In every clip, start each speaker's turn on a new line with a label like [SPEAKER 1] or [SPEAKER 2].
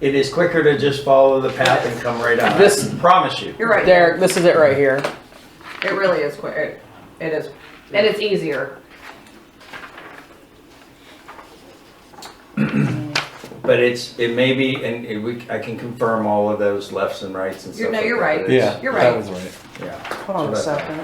[SPEAKER 1] It is quicker to just follow the path and come right out.
[SPEAKER 2] This-
[SPEAKER 1] I promise you.
[SPEAKER 3] You're right.
[SPEAKER 2] Derek, this is it right here.
[SPEAKER 3] It really is quick. It, it is, and it's easier.
[SPEAKER 1] But it's, it may be, and it- we, I can confirm all of those lefts and rights and
[SPEAKER 3] You're-
[SPEAKER 1] stuff.
[SPEAKER 3] no,
[SPEAKER 1] like
[SPEAKER 3] you're
[SPEAKER 1] that.
[SPEAKER 3] right.
[SPEAKER 1] It's-
[SPEAKER 4] Yeah,
[SPEAKER 3] You're
[SPEAKER 4] that
[SPEAKER 3] right.
[SPEAKER 4] was right.
[SPEAKER 1] Yeah.
[SPEAKER 2] Hold on a second.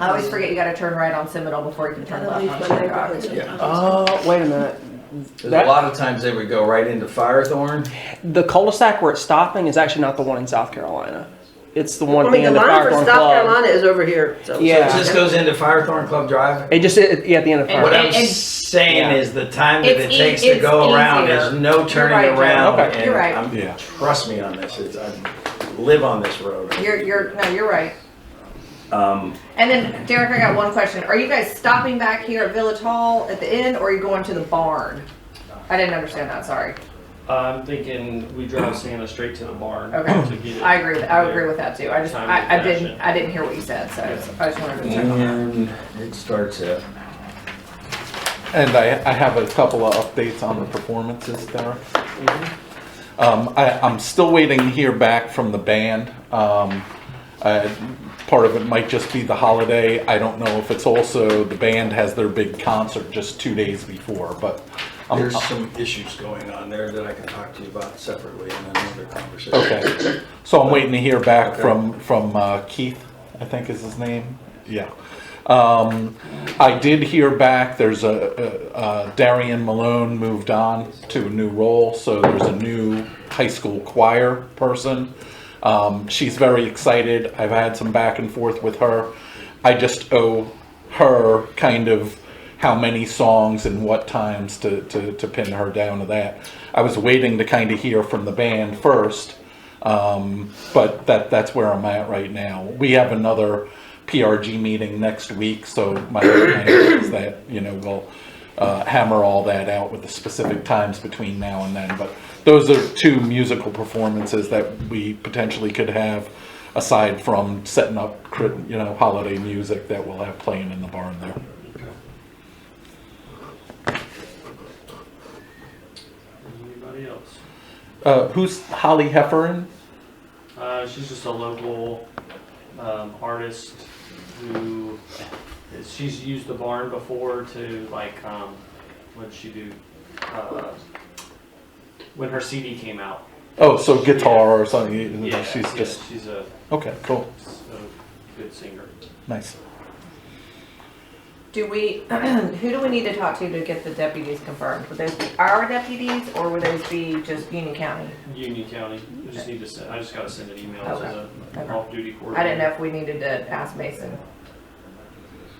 [SPEAKER 3] I always forget you gotta turn right on Seminole before you can turn
[SPEAKER 5] That'll
[SPEAKER 3] left
[SPEAKER 5] be
[SPEAKER 3] on
[SPEAKER 5] fun.
[SPEAKER 3] Sugar
[SPEAKER 5] I
[SPEAKER 3] Rock.
[SPEAKER 5] really don't
[SPEAKER 1] Yeah.
[SPEAKER 5] know.
[SPEAKER 2] Oh, wait a minute.
[SPEAKER 1] There's
[SPEAKER 2] That-
[SPEAKER 1] a lot of times they would go right into Firethorn.
[SPEAKER 2] The cul-de-sac where it's stopping is actually not the one in South Carolina. It's the one
[SPEAKER 5] I mean,
[SPEAKER 2] thing
[SPEAKER 5] the
[SPEAKER 2] in the
[SPEAKER 5] line for
[SPEAKER 2] Firethorn
[SPEAKER 5] South
[SPEAKER 2] Club.
[SPEAKER 5] Carolina is over here, so.
[SPEAKER 1] So
[SPEAKER 2] Yeah.
[SPEAKER 1] it just goes into Firethorn Club Drive.
[SPEAKER 2] It just, it- yeah, at the end of
[SPEAKER 3] And-
[SPEAKER 1] What
[SPEAKER 2] Firethorn.
[SPEAKER 1] I'm saying
[SPEAKER 2] Yeah.
[SPEAKER 1] is the time that it
[SPEAKER 3] It's e-
[SPEAKER 1] takes to
[SPEAKER 3] it's
[SPEAKER 1] go around
[SPEAKER 3] easier.
[SPEAKER 1] is no
[SPEAKER 3] right,
[SPEAKER 1] turning
[SPEAKER 3] Joe.
[SPEAKER 1] around.
[SPEAKER 2] Okay.
[SPEAKER 1] and
[SPEAKER 3] You're right.
[SPEAKER 1] I'm-
[SPEAKER 4] Yeah.
[SPEAKER 1] Trust me on this, it's, I live on this road.
[SPEAKER 3] You're, you're, no, you're right.
[SPEAKER 1] Um,
[SPEAKER 3] And then Derek, I got one question. Are you guys stopping back here at Village Hall at the inn or are you going to the barn? I didn't understand that, sorry.
[SPEAKER 6] I'm thinking we drive Santa straight to the barn.
[SPEAKER 3] Okay.
[SPEAKER 6] To get it.
[SPEAKER 3] I agree, with- I agree with that too. I just,
[SPEAKER 6] Time
[SPEAKER 3] I, I
[SPEAKER 6] and
[SPEAKER 3] didn't,
[SPEAKER 6] fashion.
[SPEAKER 3] I didn't hear what you said, so I just- I just wanted to check on that.
[SPEAKER 1] and it starts at,
[SPEAKER 4] And I, I have a couple of updates on the performances, Derek. Um, I, I'm still waiting to hear back from the band. Um, uh, part of it might just be the holiday. I don't know if it's also, the band has their big concert just two days before, but I'm-
[SPEAKER 1] there's some issues going on there that I can talk to you about separately in another conversation.
[SPEAKER 4] Okay, so I'm waiting to hear back
[SPEAKER 1] Okay.
[SPEAKER 4] from, from uh, Keith, I think is his name, yeah. Um, I did hear back, there's a, a- uh, Darian Malone moved on to a new role, so there's a new high school choir person. Um, she's very excited, I've had some back and forth with her. I just owe her kind of how many songs and what times to, to, to pin her down to that. I was waiting to kind of hear from the band first, um, but that that's where I'm at right now. We have another PRG meeting next week, so my plan is that you know we'll uh, hammer all that out with the specific times between now and then. But those are two musical performances that we potentially could have, aside from setting up cri- you know holiday music that we'll have playing in the barn there.
[SPEAKER 6] Anybody else?
[SPEAKER 4] Uh, who's Holly Heffernan?
[SPEAKER 6] Uh, she's just a local um, artist who she's used the barn before to like um, what she do uh, when her CD came out.
[SPEAKER 4] Oh, so guitar or something.
[SPEAKER 6] Yeah,
[SPEAKER 4] Mm-hmm. she's
[SPEAKER 6] yeah,
[SPEAKER 4] just
[SPEAKER 6] she's a,
[SPEAKER 4] okay. Cool,
[SPEAKER 6] a good singer.
[SPEAKER 4] nice.
[SPEAKER 3] Do we, who do we need to talk to to get the deputies confirmed? Would those be our deputies or would those be just Union County?
[SPEAKER 6] Union County. I just need to send. I just gotta send an email to the
[SPEAKER 3] Okay.
[SPEAKER 6] off-duty
[SPEAKER 3] I
[SPEAKER 6] coordinator.
[SPEAKER 3] didn't know if we needed to ask Mason,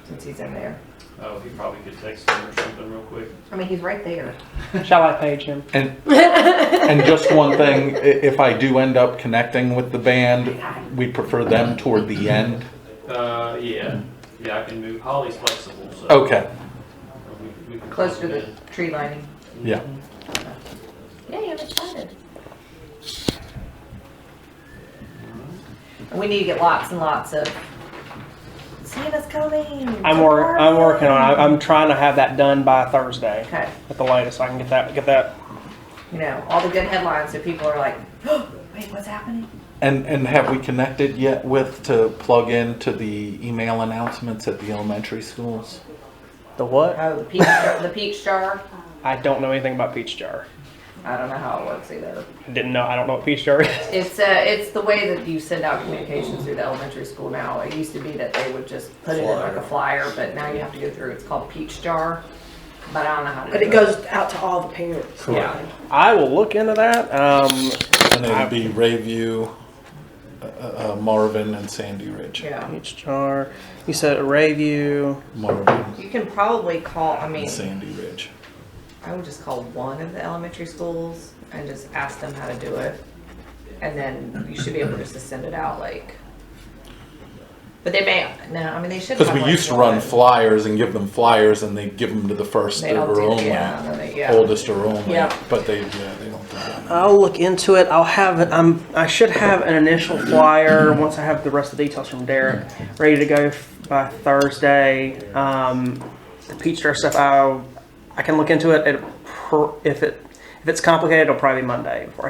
[SPEAKER 3] since he's in there.
[SPEAKER 6] Oh, he probably could text him or something real quick.
[SPEAKER 3] I mean, he's right there.
[SPEAKER 2] Shall I page him?
[SPEAKER 4] And and just one thing, i- if I do end up connecting with the band, we prefer them toward the end.
[SPEAKER 6] Uh, yeah, yeah, I can move. Holly's flexible, so.
[SPEAKER 4] Okay,
[SPEAKER 6] we- we can
[SPEAKER 3] Close to
[SPEAKER 6] plug it
[SPEAKER 3] the
[SPEAKER 6] in.
[SPEAKER 3] tree lining.
[SPEAKER 4] yeah.
[SPEAKER 3] Yay, I'm excited. We need to get lots and lots of Santa's coming.
[SPEAKER 2] I'm wor, I'm working on, it. I'm trying to have that done by Thursday
[SPEAKER 3] Okay,
[SPEAKER 2] at the latest, so I can get that, get that.
[SPEAKER 3] you know, all the good headlines, so people are like, oh, wait, what's happening?
[SPEAKER 4] And and have we connected yet with to plug in to the email announcements at the elementary schools?
[SPEAKER 2] The what?
[SPEAKER 3] Oh, the peach, jar- the peach jar.
[SPEAKER 2] I don't know anything about peach jar.
[SPEAKER 3] I don't know how it works either.
[SPEAKER 2] I Didn't know, I don't know what peach jar is.
[SPEAKER 3] It's uh, it's the way that you send out communications through the elementary school now. It used to be that they would just put it in like a flyer, but now you have to go through. It's called Peach Jar, but I don't know how to.
[SPEAKER 5] But
[SPEAKER 3] do
[SPEAKER 5] it goes out to all the parents.
[SPEAKER 2] Yeah, I will look into that. Um,
[SPEAKER 4] And it'd be Rayview, uh, uh, Marvin, and Sandy Ridge.
[SPEAKER 3] Yeah,
[SPEAKER 2] peach jar. You said Rayview.
[SPEAKER 4] Marvin,
[SPEAKER 3] you can probably call. I mean,
[SPEAKER 4] and Sandy Ridge.
[SPEAKER 3] I would just call one of the elementary schools and just ask them how to do it, and then you should be able just to send it out like. But they may no. I mean, they should.
[SPEAKER 4] Because
[SPEAKER 3] have,
[SPEAKER 4] we
[SPEAKER 3] like,
[SPEAKER 4] used to run
[SPEAKER 3] one.
[SPEAKER 4] flyers and give them flyers, and they give them to the first
[SPEAKER 3] They don't
[SPEAKER 4] or
[SPEAKER 3] do-
[SPEAKER 4] only,
[SPEAKER 3] yeah, no, they- yeah.
[SPEAKER 4] oldest or only.
[SPEAKER 3] Yeah.
[SPEAKER 4] But they, yeah, they don't do that.
[SPEAKER 2] I'll look into it. I'll have it. I'm. I should have an initial flyer once I have the rest of the details from Derek ready to go f- by Thursday. Um, the peach jar stuff. I I can look into it. it pr- if it if it's complicated, it'll probably be Monday before I